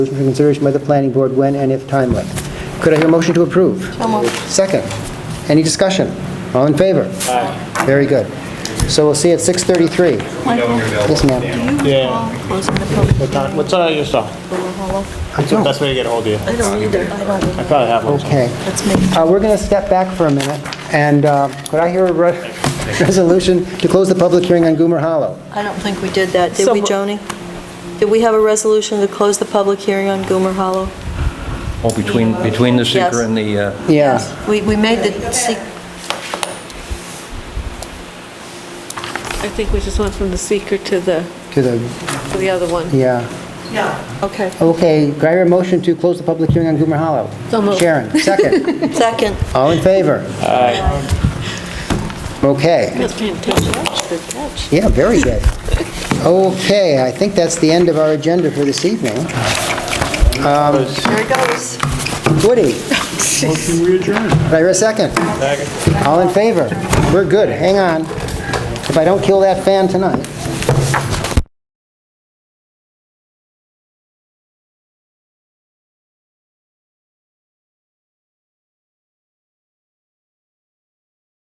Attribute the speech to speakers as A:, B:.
A: resolution for consideration by the planning board when and if timely. Could I hear a motion to approve? Second. Any discussion? All in favor? Aye. Very good. So we'll see at 6:33. Yes, ma'am.
B: Do you recall closing the public
C: What time- What's uh, your stuff?
A: I
C: What's the
A: don't.
C: best way to get ahold of you?
B: I don't either. I
C: I
B: don't.
C: probably have one.
A: Okay.
B: That's me.
A: Uh, We're going to step back for a minute, and uh, could I hear a re- resolution to close the public hearing on Goomer Hollow?
B: I don't think we did that, did we, Joni? Did we have a resolution to close the public hearing on Goomer Hollow?
D: Oh, between, between the
B: Yes.
D: seeker and the, uh,
A: Yeah.
B: We, we made the, se-
E: I think we just went from the seeker to the,
A: To the,
E: to the other one.
A: yeah.
B: okay,
A: Okay, could I hear a motion to close the public hearing on Goomer Hollow?
E: So moved.
A: Sharon, second.
B: second.
A: All in favor? Okay.
E: That's fantastic. Good catch.
A: Yeah, very good. Okay, I think that's the end of our agenda for this evening. Um,
B: There it goes.
A: Woody? Motion adjourn. Could I hear a second? Second. All in favor? We're good, hang on. If I don't kill that fan tonight.